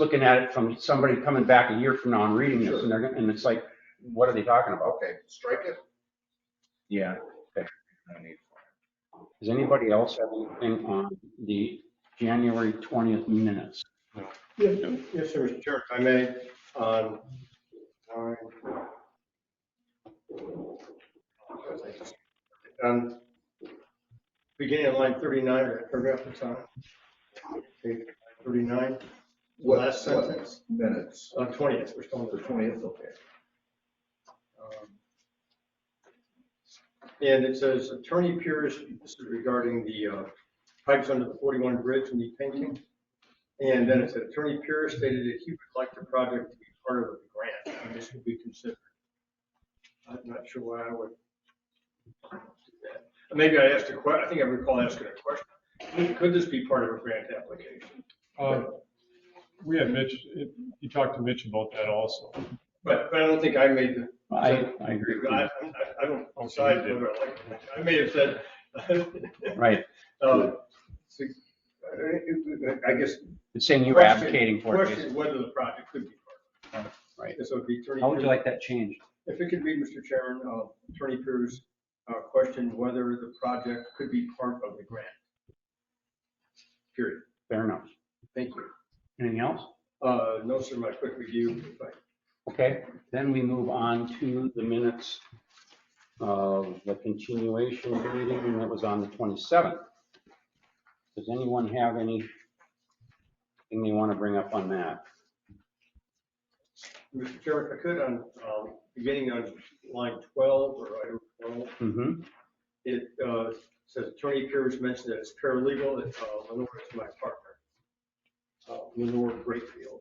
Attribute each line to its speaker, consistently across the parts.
Speaker 1: looking at it from somebody coming back a year from now and reading this, and they're, gonna- and it's like, what are they talking about?
Speaker 2: Okay, strike it.
Speaker 1: Yeah.
Speaker 2: No need for it.
Speaker 1: Does anybody else have anything on the January 20th minutes?
Speaker 3: Yes, yes, sir, Mr. Chair, if I may, um, on line. On beginning of line 39, that paragraph that's on. Page 39,
Speaker 2: What-
Speaker 3: last
Speaker 2: what
Speaker 3: sentence.
Speaker 2: Minutes,
Speaker 3: on 20th, we're still on
Speaker 2: the
Speaker 3: the
Speaker 2: twentieth, okay.
Speaker 3: um, And it says Attorney Pierce, this is regarding the uh, pipes under the 41 bridge and the painting. And then it said Attorney Pierce stated that he would like the project to be part of a grant, and this would be considered. I'm not sure why I would. do that. Maybe I asked a que, I think I recall asking a question. Could this be part of a grant application?
Speaker 4: Uh, We had Mitch, you talked to Mitch about that also.
Speaker 3: But, but I don't think I made the
Speaker 1: I, I agree with
Speaker 3: I,
Speaker 1: you.
Speaker 3: I I don't decide whether I like, it. I may have said.
Speaker 1: Right.
Speaker 3: um, so, uh, I I guess.
Speaker 1: It's saying you were
Speaker 3: question-
Speaker 1: advocating for it.
Speaker 3: Question
Speaker 1: basically.
Speaker 3: is whether the project could be part of it.
Speaker 1: Right.
Speaker 3: This would be attorney.
Speaker 1: How would you like that changed?
Speaker 3: If it could be, Mr. Chairman, uh, Attorney Cruz, uh, question whether the project could be part of the grant. Period.
Speaker 1: Fair enough.
Speaker 3: Thank you.
Speaker 1: Anything else?
Speaker 3: Uh, no, sir, my quick review, if I
Speaker 1: Okay, then we move on to the minutes of the continuation of the meeting that was on the 27th. Does anyone have any, anything they want to bring up on that?
Speaker 3: Mr. Chairman, if I could, on, um, beginning on line 12 or item 12.
Speaker 1: Mm-hmm,
Speaker 3: It uh, says Attorney Pierce mentioned that it's paralegal, that uh, Lenore is my partner. Uh, Lenore Greatfield.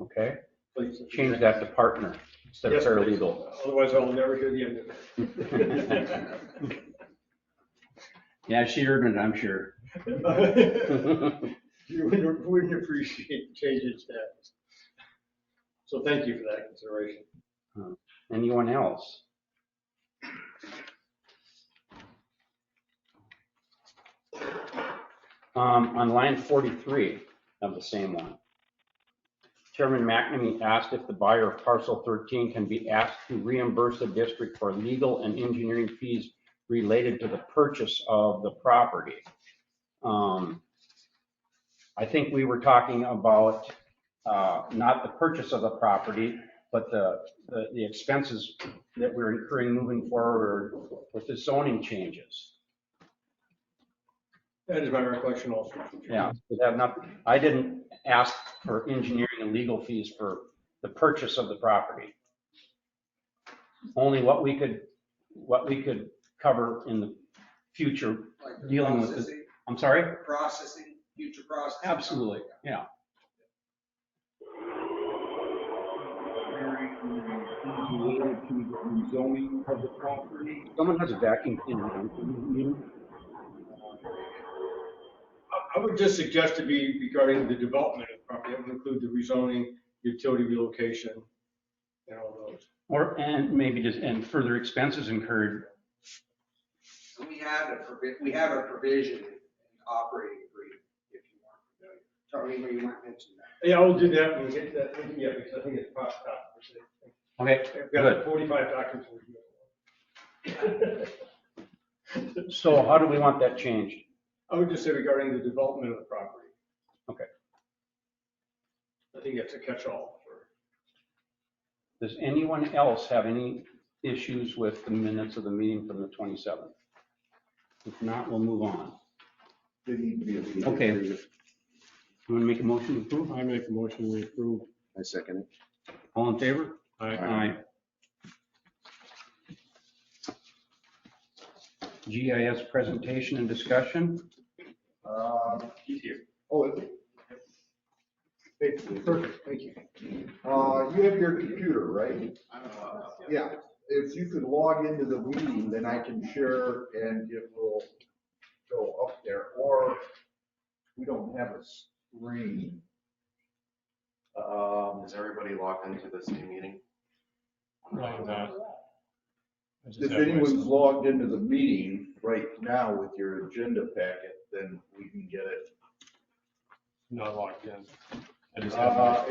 Speaker 1: okay.
Speaker 3: Please.
Speaker 1: Change that to partner instead of
Speaker 3: Yes, please.
Speaker 1: paralegal.
Speaker 3: Otherwise I'll never hear the end of
Speaker 1: Yeah, she heard it, I'm sure.
Speaker 3: it. You wouldn't- wouldn't appreciate changing status. So thank you for that consideration.
Speaker 1: Anyone else? Um, on line 43 of the same one. Chairman McNamee asked if the buyer of parcel 13 can be asked to reimburse the district for legal and engineering fees related to the purchase of the property. Um, I think we were talking about, uh, not the purchase of the property, but the, the the expenses that we're incurring moving forward with the zoning changes.
Speaker 3: That is my recollection also.
Speaker 1: Yeah, we have not, I didn't ask for engineering and legal fees for the purchase of the property. Only what we could, what we could cover in the future.
Speaker 5: like the
Speaker 1: Dealing with it.
Speaker 5: processing-
Speaker 1: I'm sorry?
Speaker 5: Processing, future processing.
Speaker 1: Absolutely, yeah.
Speaker 6: related to the zoning of the property.
Speaker 1: Someone has a vacuum cleaner.
Speaker 3: I- I would just suggest to be regarding the development of the property, that would include the rezoning, utility relocation, and all those.
Speaker 1: Or, and maybe just, and further expenses incurred
Speaker 5: And we have a provi, we have a provision in the operating agreement, if you want to know. Tony, you might mention that.
Speaker 3: Yeah, I'll do that when we get that, yeah, because I think it's past that.
Speaker 1: Okay,
Speaker 3: I've got forty-five documents.
Speaker 1: so how do we want that changed?
Speaker 3: I would just say regarding the development of the property.
Speaker 1: Okay.
Speaker 3: I think that's a catch-all for,
Speaker 1: Does anyone else have any issues with the minutes of the meeting from the 27th? If not, we'll move on.
Speaker 2: They need to be. approved.
Speaker 1: Okay. You want to make a motion to approve?
Speaker 4: I make a motion we approve.
Speaker 6: I second it.
Speaker 1: All in favor?
Speaker 4: I
Speaker 1: Aye. GIS presentation and discussion.
Speaker 2: Um,
Speaker 3: he's here.
Speaker 2: Oh, is it? Hey, Perfect, thank you. Uh, you have your computer, right? Yeah, if you could log into the meeting, then I can share and it will go up there, or we don't have a screen. Um,
Speaker 7: Is everybody logged into the same meeting?
Speaker 4: like that. I just
Speaker 2: If
Speaker 4: have my-
Speaker 2: anyone's logged into the meeting right now with your agenda packet, then we can get it.
Speaker 4: Not locked in.
Speaker 8: I just have-
Speaker 4: Uh,